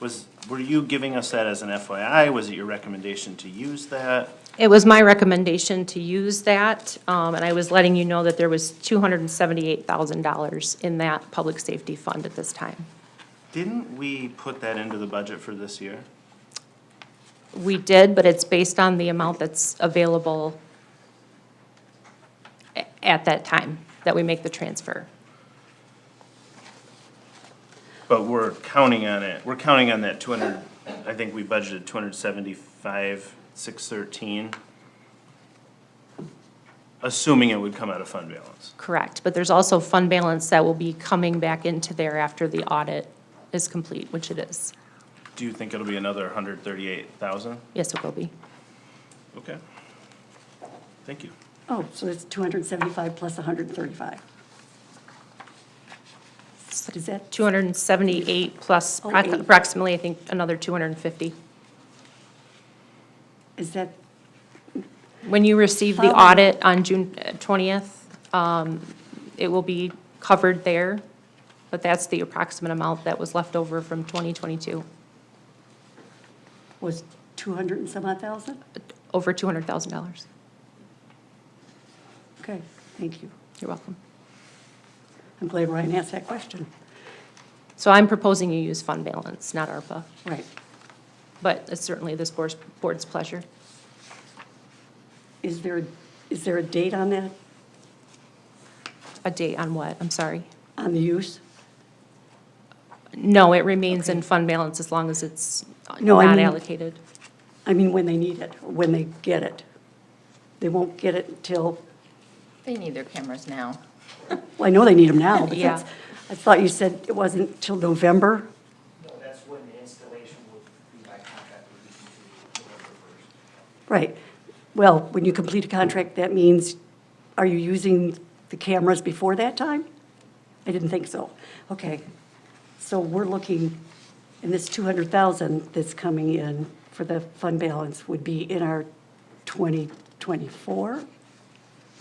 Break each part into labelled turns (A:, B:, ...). A: Was, were you giving us that as an FYI? Was it your recommendation to use that?
B: It was my recommendation to use that, um, and I was letting you know that there was $278,000 in that public safety fund at this time.
A: Didn't we put that into the budget for this year?
B: We did, but it's based on the amount that's available a- at that time that we make the transfer.
A: But we're counting on it, we're counting on that two hundred, I think we budgeted two hundred seventy-five, six thirteen. Assuming it would come out of fund balance.
B: Correct, but there's also fund balance that will be coming back into there after the audit is complete, which it is.
A: Do you think it'll be another hundred thirty-eight thousand?
B: Yes, it will be.
A: Okay. Thank you.
C: Oh, so it's 275 plus 135. Is that,
B: 278 plus
C: Oh,
B: proc-
C: eight.
B: approximately, I think, another 250.
C: is that,
B: When you receive the
C: Following-
B: audit on June uh, 20th, um, it will be covered there, but that's the approximate amount that was left over from 2022,
C: was 200 and some odd thousand?
B: over $200,000.
C: Okay, thank you.
B: You're welcome.
C: I'm glad Ryan asked that question.
B: So I'm proposing you use fund balance, not ARPA,
C: Right.
B: but it's certainly this board's board's pleasure.
C: Is there, is there a date on that,
B: A date on what? I'm sorry.
C: on the use?
B: No, it remains in fund balance as long as it's
C: No, I
B: not
C: mean-
B: allocated.
C: I mean, when they need it, or when they get it. They won't get it until,
D: They need their cameras now.
C: well, I know they need them now, but
B: Yeah.
C: that's, I thought you said it wasn't till November?
E: No, that's when the installation would be by contract, would be completed November first.
C: Right. Well, when you complete a contract, that means, are you using the cameras before that time? I didn't think so. Okay. So we're looking, and this 200,000 that's coming in for the fund balance would be in our 2024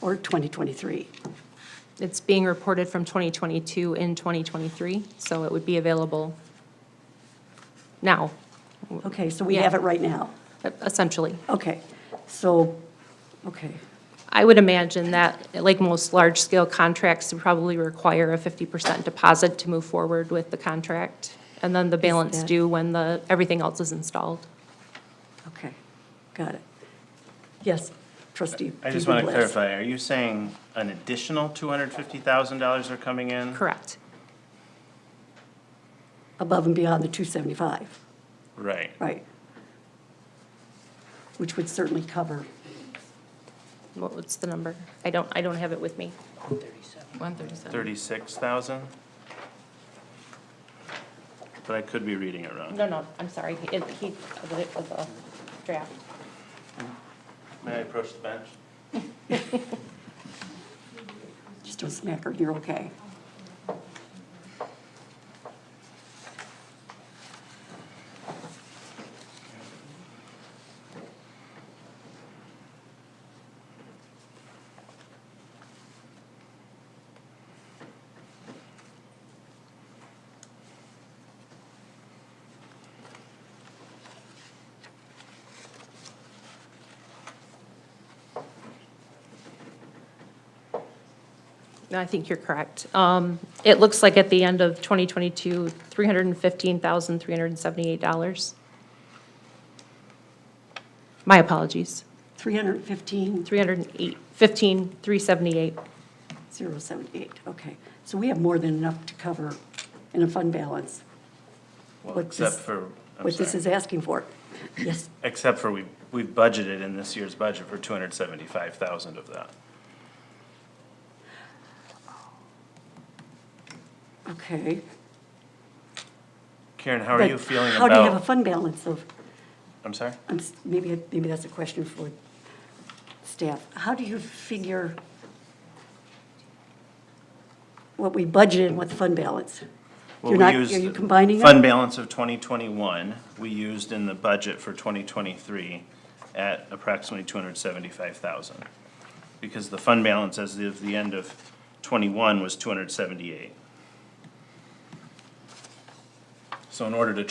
C: or 2023?
B: It's being reported from 2022 in 2023, so it would be available now,
C: Okay, so we have it right now.
B: essentially.
C: Okay. So, okay,
B: I would imagine that, like most large-scale contracts, would probably require a 50% deposit to move forward with the contract, and then the balance
C: that-
B: due when the, everything else is installed.
C: okay. Got it. Yes, trustee.
A: I just want to
C: Blas.
A: clarify, are you saying an additional two hundred fifty thousand dollars are coming in?
B: Correct.
C: Above and beyond the 275.
A: Right.
C: Right. Which would certainly cover,
B: What was the number? I don't, I don't have it with me.
D: One thirty-seven.
A: Thirty-six thousand? But I could be reading it wrong.
B: No, no, I'm sorry. It, he, it was a draft.
A: May I approach the bench?
C: just don't smack her, you're okay.
B: No, I think you're correct. Um, It looks like at the end of 2022, $315,378. My apologies,
C: 315,078,
B: 308, 15,378.
C: okay. So we have more than enough to cover in a fund balance,
A: Well,
C: What
A: except
C: this-
A: for, I'm
C: what this
A: sorry,
C: is asking for. Yes,
A: except for we, we've budgeted in this year's budget for two hundred seventy-five thousand of that.
C: okay.
A: Karen, how are you
C: But
A: feeling
C: How do you have a
A: about,
C: fund balance of,
A: I'm sorry?
C: I'm s- maybe, maybe that's a question for staff. How do you figure what we budgeted and what the fund balance?
A: Well,
C: You're
A: we
C: not-
A: used
C: Are you
A: the
C: combining them?
A: Fund balance of twenty twenty-one, we used in the budget for twenty twenty-three at approximately two hundred seventy-five thousand. Because the fund balance as of the end of twenty-one was two hundred seventy-eight. So in order to